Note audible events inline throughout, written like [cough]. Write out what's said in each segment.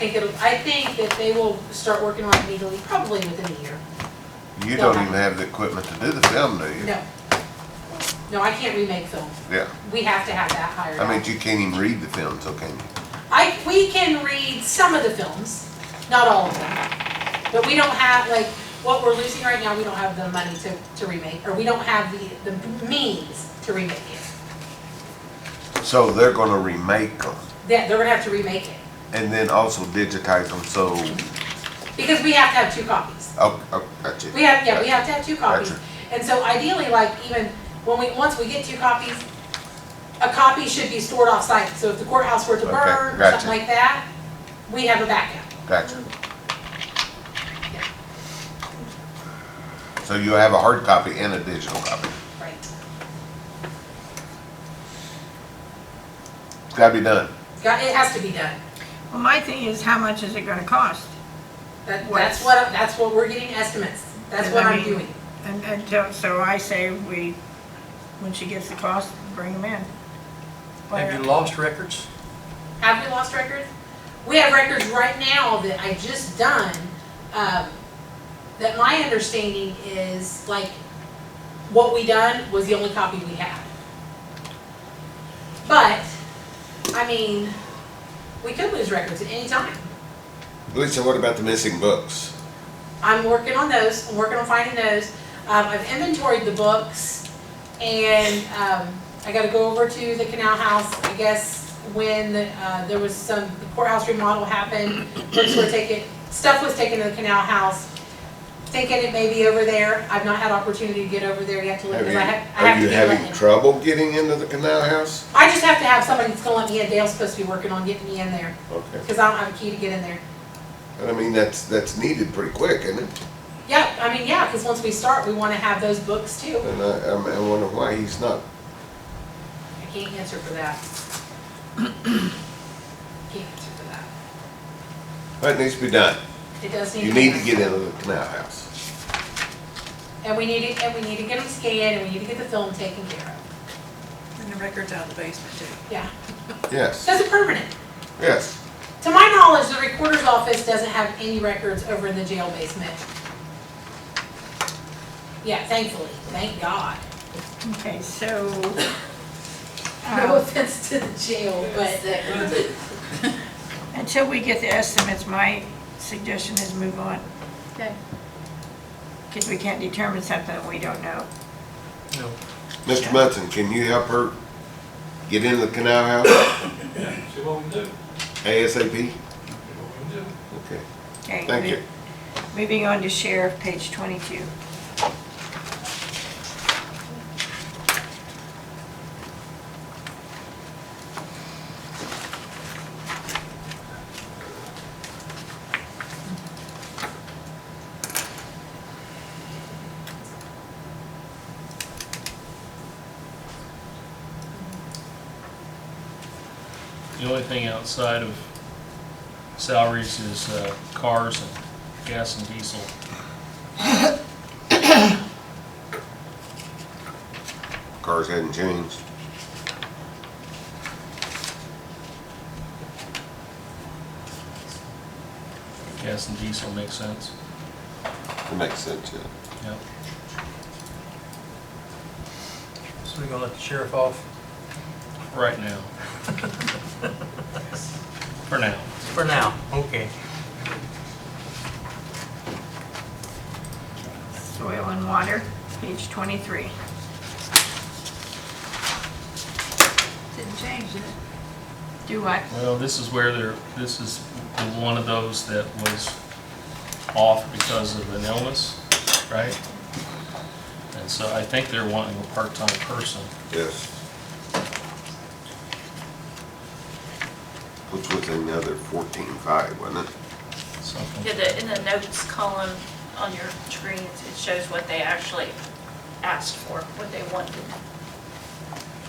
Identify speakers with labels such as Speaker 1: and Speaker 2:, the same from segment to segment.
Speaker 1: think it'll, I think that they will start working on it legally probably within a year.
Speaker 2: You don't even have the equipment to do the film, do you?
Speaker 1: No. No, I can't remake film.
Speaker 2: Yeah,
Speaker 1: We have to have that hired
Speaker 2: I mean,
Speaker 1: out.
Speaker 2: you can't even read the film, so can you?
Speaker 1: I, we can read some of the films, not all of them. But we don't have, like, what we're losing right now, we don't have the money to, to remake, or we don't have the, the means to remake it.
Speaker 2: So they're gonna remake them
Speaker 1: That, they're gonna have to remake it,
Speaker 2: and then also digitize them, so,
Speaker 1: because we have to have two copies.
Speaker 2: oh, oh, gotcha.
Speaker 1: We have, yeah, we have to have two copies.
Speaker 2: Gotcha.
Speaker 1: And so ideally, like even when we, once we get two copies, a copy should be stored off-site. So if the courthouse were to
Speaker 2: Okay,
Speaker 1: burn, or
Speaker 2: gotcha.
Speaker 1: something like that, we have a backup.
Speaker 2: Gotcha. So you have a hard copy and a digital copy.
Speaker 1: Right.
Speaker 2: It's gotta be done.
Speaker 1: Got, it has to be done.
Speaker 3: Well, my thing is, how much is it gonna cost?
Speaker 1: That, that's
Speaker 3: Yes.
Speaker 1: what, that's what we're getting estimates. That's
Speaker 3: And
Speaker 1: what
Speaker 3: I
Speaker 1: I'm
Speaker 3: mean-
Speaker 1: doing.
Speaker 3: And, and so- so I say we, when she gets the cost, bring them in.
Speaker 4: Have you lost records?
Speaker 1: Have we lost records? We have records right now that I just done, um, that my understanding is like, what we done was the only copy we had. But, I mean, we could lose records at any time.
Speaker 2: Lisa, what about the missing books?
Speaker 1: I'm working on those, I'm working on finding those. Um, I've inventoried the books and, um, I gotta go over to the canal house, I guess, when, uh, there was some the courthouse remodel happened. Books were taken, stuff was taken to the canal house, thinking it may be over there. I've not had opportunity to get over there yet to look,
Speaker 2: Have
Speaker 1: because
Speaker 2: you,
Speaker 1: I have, I have
Speaker 2: are
Speaker 1: to
Speaker 2: you
Speaker 1: be
Speaker 2: having
Speaker 1: letting.
Speaker 2: trouble getting into the canal house?
Speaker 1: I just have to have somebody that's gonna let me in, Dale's supposed to be working on getting me in there,
Speaker 2: Okay.
Speaker 1: cause I don't have a key to get in there.
Speaker 2: And I mean, that's, that's needed pretty quick, isn't it?
Speaker 1: Yeah, I mean, yeah, cause once we start, we wanna have those books too.
Speaker 2: And I, I'm- I wonder why he's not.
Speaker 1: I can't answer for that. [clears throat] Can't answer for that.
Speaker 2: That needs to be done.
Speaker 1: It does need to
Speaker 2: You
Speaker 1: be
Speaker 2: need
Speaker 1: done.
Speaker 2: to get into the canal house.
Speaker 1: And we need to, and we need to get them scanned, and we need to get the film taken care of.
Speaker 5: And the records out of the basement too.
Speaker 1: Yeah,
Speaker 2: Yes,
Speaker 1: that's a permanent.
Speaker 2: yes.
Speaker 1: To my knowledge, the recorder's office doesn't have any records over in the jail basement. Yeah, thankfully, thank God.
Speaker 3: Okay, so,
Speaker 1: No
Speaker 3: uh,
Speaker 1: offense to the jail, but
Speaker 3: until we get the estimates, my suggestion is move on.
Speaker 5: Okay.
Speaker 3: Because we can't determine something that we don't know.
Speaker 4: No.
Speaker 2: Mr. Munson, can you help her get into the canal house
Speaker 6: See what we can do,
Speaker 2: ASAP?
Speaker 6: see what we can do.
Speaker 2: Okay,
Speaker 3: Okay,
Speaker 2: thank you.
Speaker 3: Moving on to sheriff, page twenty-two.
Speaker 7: The only thing outside of salaries is uh, cars and gas and diesel.
Speaker 2: Cars hadn't changed.
Speaker 7: Gas and diesel makes sense.
Speaker 2: It makes sense, yeah.
Speaker 7: Yep.
Speaker 4: So we're gonna let the sheriff off
Speaker 7: Right now. For now.
Speaker 4: for now? Okay.
Speaker 3: Soil and water, page twenty-three. Didn't change, did it? Do what?
Speaker 7: Well, this is where there, this is the one of those that was off because of an illness, right? And so I think they're wanting a part-time person.
Speaker 2: Yes. Which was another fourteen-five, wasn't it?
Speaker 7: Something.
Speaker 8: Yeah, the, in the notes column on your screen, it it shows what they actually asked for, what they wanted.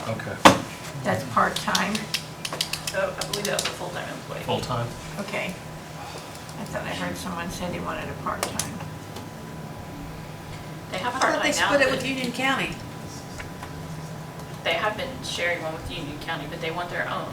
Speaker 7: Okay.
Speaker 3: That's part-time,
Speaker 8: So Oh, I believe that was a full-time employee.
Speaker 7: Full-time?
Speaker 3: okay. I thought I heard someone say they wanted a part-time.
Speaker 8: They
Speaker 5: I
Speaker 8: have
Speaker 5: thought they
Speaker 8: part-time now,
Speaker 5: split it with
Speaker 8: but
Speaker 5: Union County.
Speaker 8: they have been sharing one with Union County, but they want their own.